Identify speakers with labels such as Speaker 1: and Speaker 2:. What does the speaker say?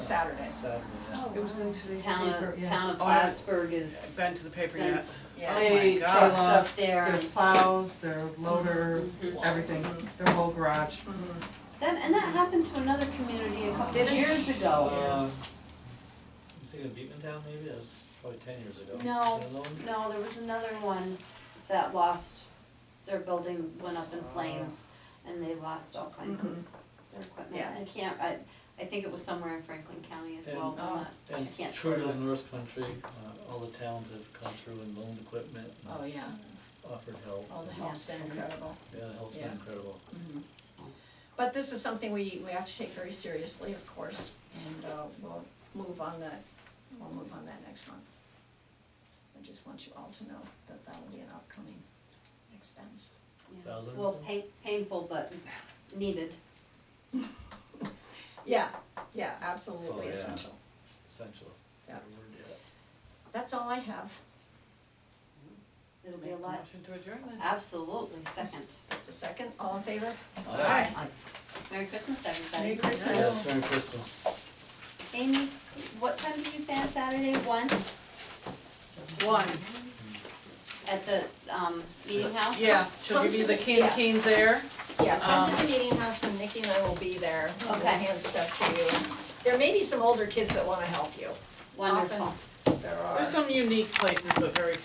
Speaker 1: Saturday.
Speaker 2: Saturday, yeah.
Speaker 3: It was in today's
Speaker 4: Town
Speaker 3: paper,
Speaker 4: of,
Speaker 3: yeah.
Speaker 4: town of
Speaker 5: Oh, yeah.
Speaker 4: Plattsburgh is,
Speaker 5: I've been to the paper
Speaker 4: Sent-
Speaker 5: yet.
Speaker 1: Yeah.
Speaker 5: Oh my
Speaker 3: They
Speaker 5: God.
Speaker 3: truck
Speaker 4: Trucks
Speaker 3: up,
Speaker 4: up there
Speaker 3: There's
Speaker 4: and-
Speaker 3: plows, their loader,
Speaker 4: Mhm.
Speaker 3: everything, their whole garage.
Speaker 4: that, and that happened to another community a couple
Speaker 1: Did it?
Speaker 4: years ago.
Speaker 2: Um, You think of Beatman Town maybe, that was probably ten years ago.
Speaker 4: No.
Speaker 2: Is that alone?
Speaker 4: No, there was another one that lost, their building went up
Speaker 1: Oh.
Speaker 4: in flames and they lost all kinds of their equipment.
Speaker 1: Yeah.
Speaker 4: I can't, I, I think it was somewhere in Franklin County as
Speaker 1: oh,
Speaker 4: well, but I'm not- I
Speaker 2: And
Speaker 4: can't.
Speaker 2: true to the North Country, uh, all the towns have come through and loaned equipment
Speaker 1: Oh,
Speaker 2: and
Speaker 1: yeah,
Speaker 2: offered help.
Speaker 1: oh, the help's been incredible.
Speaker 2: Yeah, the help's been
Speaker 1: Yeah.
Speaker 2: incredible.
Speaker 1: But this is something we, we have to take very seriously, of course, and uh, we'll move on that, we'll move on that next month. I just want you all to know that that will be an upcoming expense.
Speaker 4: Yeah.
Speaker 2: Thousand?
Speaker 4: Well, pain, painful, but needed.
Speaker 1: Yeah, yeah,
Speaker 2: Oh,
Speaker 1: absolutely
Speaker 2: yeah.
Speaker 1: essential.
Speaker 2: Essential.
Speaker 1: Yeah.
Speaker 2: Yeah.
Speaker 1: That's all I have,
Speaker 4: It'll be a lot,
Speaker 5: Motion to adjourn then.
Speaker 4: absolutely, second.
Speaker 1: that's a second, all in favor?
Speaker 2: All
Speaker 5: Aye.
Speaker 2: right.
Speaker 4: Merry Christmas, everybody.
Speaker 1: Merry Christmas.
Speaker 2: Yes, Merry Christmas.
Speaker 4: Amy, what time did you say on Saturday, one,
Speaker 5: One,
Speaker 4: at the, um, meeting house?
Speaker 5: yeah, she'll
Speaker 1: Come
Speaker 5: give you
Speaker 1: to
Speaker 5: the
Speaker 1: the-
Speaker 5: candy
Speaker 1: yeah.
Speaker 5: canes there.
Speaker 1: Yeah, come to
Speaker 5: Um,
Speaker 1: the meeting house and Nikki and I will be there, we'll
Speaker 4: Okay.
Speaker 1: hand stuff to you. There may be some older kids that wanna help you,
Speaker 4: Wonderful.
Speaker 1: there are.
Speaker 5: There's some unique places, but very